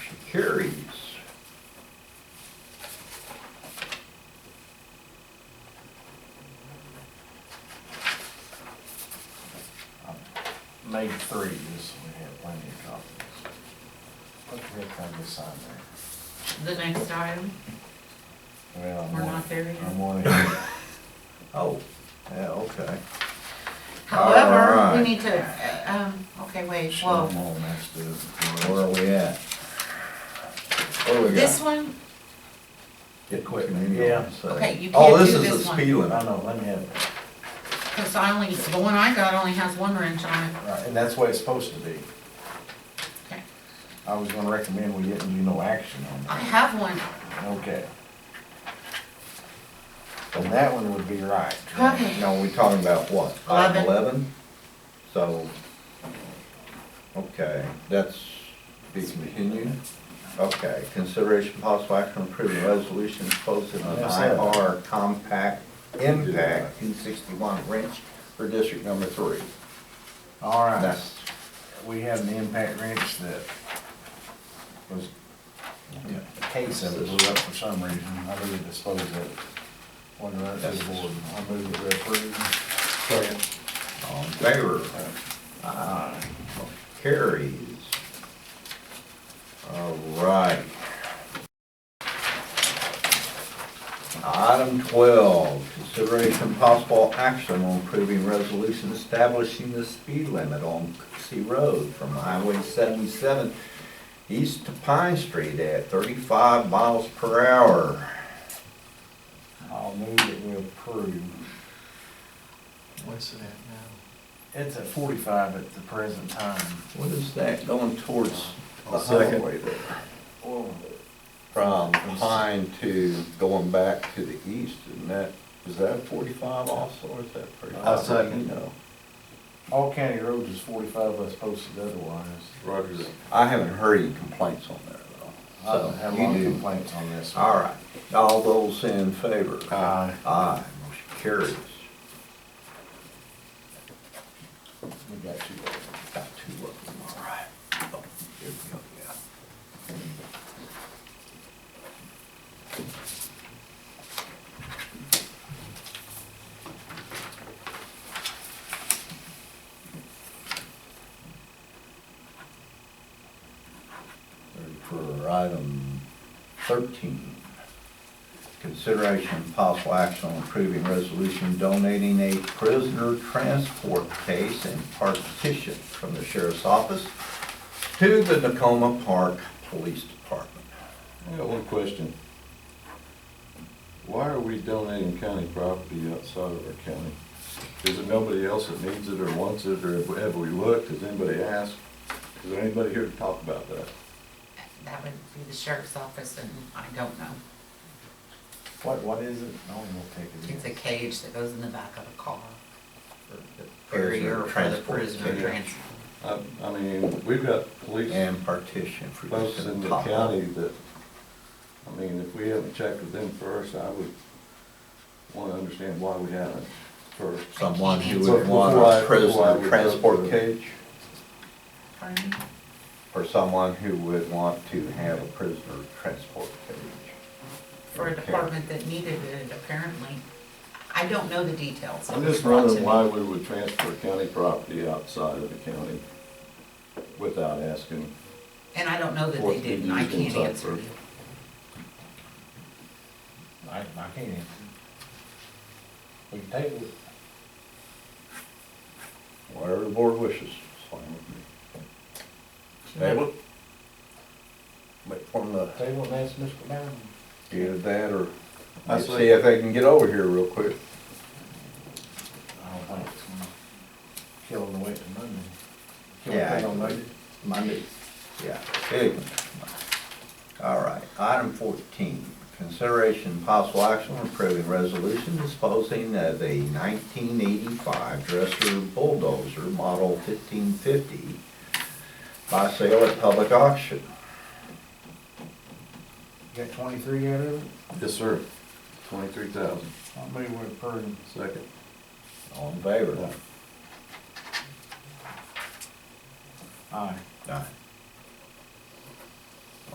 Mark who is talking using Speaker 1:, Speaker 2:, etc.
Speaker 1: carries.
Speaker 2: I Made three, this, we have plenty of copies. What the heck kind of sign there?
Speaker 3: The next item,
Speaker 2: Well, I'm
Speaker 3: we're
Speaker 2: one-
Speaker 3: not there
Speaker 2: I'm
Speaker 3: yet.
Speaker 2: one, yeah,
Speaker 1: Oh,
Speaker 2: okay.
Speaker 3: However,
Speaker 2: Alright.
Speaker 3: we need to, um, okay, wait,
Speaker 2: Shit,
Speaker 3: whoa.
Speaker 2: I'm all messed up. Where are we at? What do we got?
Speaker 3: This one,
Speaker 2: Get quick, maybe.
Speaker 1: Yeah.
Speaker 3: okay, you
Speaker 1: oh,
Speaker 3: can't
Speaker 1: this
Speaker 3: do
Speaker 1: is the
Speaker 3: this
Speaker 1: speed
Speaker 3: one.
Speaker 1: limit. I know, let me have it.
Speaker 3: Cause I only, the one I got only has one wrench on it.
Speaker 2: Right, and that's the way it's supposed to be.
Speaker 3: Okay.
Speaker 2: I was gonna recommend we didn't do no action on
Speaker 3: I
Speaker 2: that.
Speaker 3: have one.
Speaker 2: Okay. And that one would be right.
Speaker 3: Okay.
Speaker 2: Now, we talking about what?
Speaker 3: Eleven.
Speaker 2: Eleven? So, okay, that's be continued. Okay, consideration possible action on approving resolution posted on
Speaker 1: Yes, sir.
Speaker 2: IR compact impact two sixty-one wrench for district number three.
Speaker 1: All right,
Speaker 2: That's,
Speaker 1: we have an impact wrench that was, a case of it blew up for some reason. I really disposed of it. Wonder if that's the board. I move it we approve.
Speaker 2: all in favor? Aye. Carries. All right. Item twelve, consideration and possible action on approving resolution establishing the speed limit on Cooksey Road from Highway seventy-seven east to Pine Street at thirty-five miles per hour.
Speaker 1: I'll move it we approve.
Speaker 4: What's it at now?
Speaker 1: It's at forty-five at the present time.
Speaker 2: What is that going towards the
Speaker 4: I'll second.
Speaker 2: highway there? From Pine to going back to the east, isn't that, is that forty-five also, or is that pretty?
Speaker 1: I'll second.
Speaker 2: You know,
Speaker 1: All county roads is forty-five as posted otherwise.
Speaker 2: I haven't heard any complaints on there though.
Speaker 1: I don't have a
Speaker 2: So, you
Speaker 1: lot of
Speaker 2: do.
Speaker 1: complaints on this. one.
Speaker 2: All right, all those in favor?
Speaker 1: Aye.
Speaker 2: Aye, motion carries.
Speaker 1: We got two.
Speaker 2: Got two of them, all right. Oh, Here we go, yeah. Ready For item thirteen, consideration and possible action on approving resolution donating a prisoner transport case and partition from the sheriff's office to the Tacoma Park Police Department.
Speaker 5: I got one question. Why are we donating county property outside of our county? Is it nobody else that needs it or wants it, or have we looked, has anybody asked? Is there anybody here to talk about that?
Speaker 3: That would be the sheriff's office and I don't know.
Speaker 1: What, what is it? I don't know what take it
Speaker 3: It's
Speaker 1: is.
Speaker 3: a cage that goes in the back of a car.
Speaker 2: Prisoner
Speaker 3: Barrier for the
Speaker 2: transport
Speaker 3: prisoner
Speaker 2: cage
Speaker 3: transport.
Speaker 5: I, I mean, we've got police
Speaker 2: And partition for
Speaker 5: folks
Speaker 2: this
Speaker 5: in
Speaker 2: in
Speaker 5: the
Speaker 2: Tacoma.
Speaker 5: county that, I mean, if we haven't checked with them first, I would wanna understand why we haven't first.
Speaker 2: Someone who
Speaker 3: So
Speaker 2: would want
Speaker 5: before I- before
Speaker 2: a
Speaker 5: I
Speaker 2: prisoner
Speaker 5: would go
Speaker 2: transport
Speaker 5: to-
Speaker 2: cage,
Speaker 3: Pardon me?
Speaker 2: or someone who would want to have a prisoner transport cage.
Speaker 3: For a department that needed it apparently. I don't know the details.
Speaker 5: I'm just wondering why we would transfer county property outside of the county without asking.
Speaker 3: And I don't know that
Speaker 5: Or
Speaker 3: they
Speaker 5: it's
Speaker 3: didn't. I
Speaker 5: been used
Speaker 3: can't
Speaker 5: in
Speaker 3: answer
Speaker 5: Tuckford.
Speaker 3: you.
Speaker 1: I, I can't answer. We can table it.
Speaker 2: Whatever the board wishes, it's fine with me. Table it. Wait for them to
Speaker 1: Table and ask Mr. Bowden.
Speaker 2: either that or
Speaker 5: I
Speaker 2: see
Speaker 5: see.
Speaker 2: if they can get over here real quick.
Speaker 1: I don't think it's gonna kill him the way to Monday. Can we
Speaker 2: Yeah,
Speaker 1: put it
Speaker 2: I-
Speaker 1: on Monday?
Speaker 2: Monday. Yeah. Anyway. All right, item fourteen, consideration and possible action on approving resolution disposing of a nineteen eighty-five Dresser bulldozer model fifteen fifty by sale at public auction.
Speaker 1: You Got twenty-three out of it?
Speaker 5: Yes, sir. Twenty-three thousand,
Speaker 1: I'll move with Purdy.
Speaker 5: second.
Speaker 2: All in favor?
Speaker 1: Aye.
Speaker 2: Aye.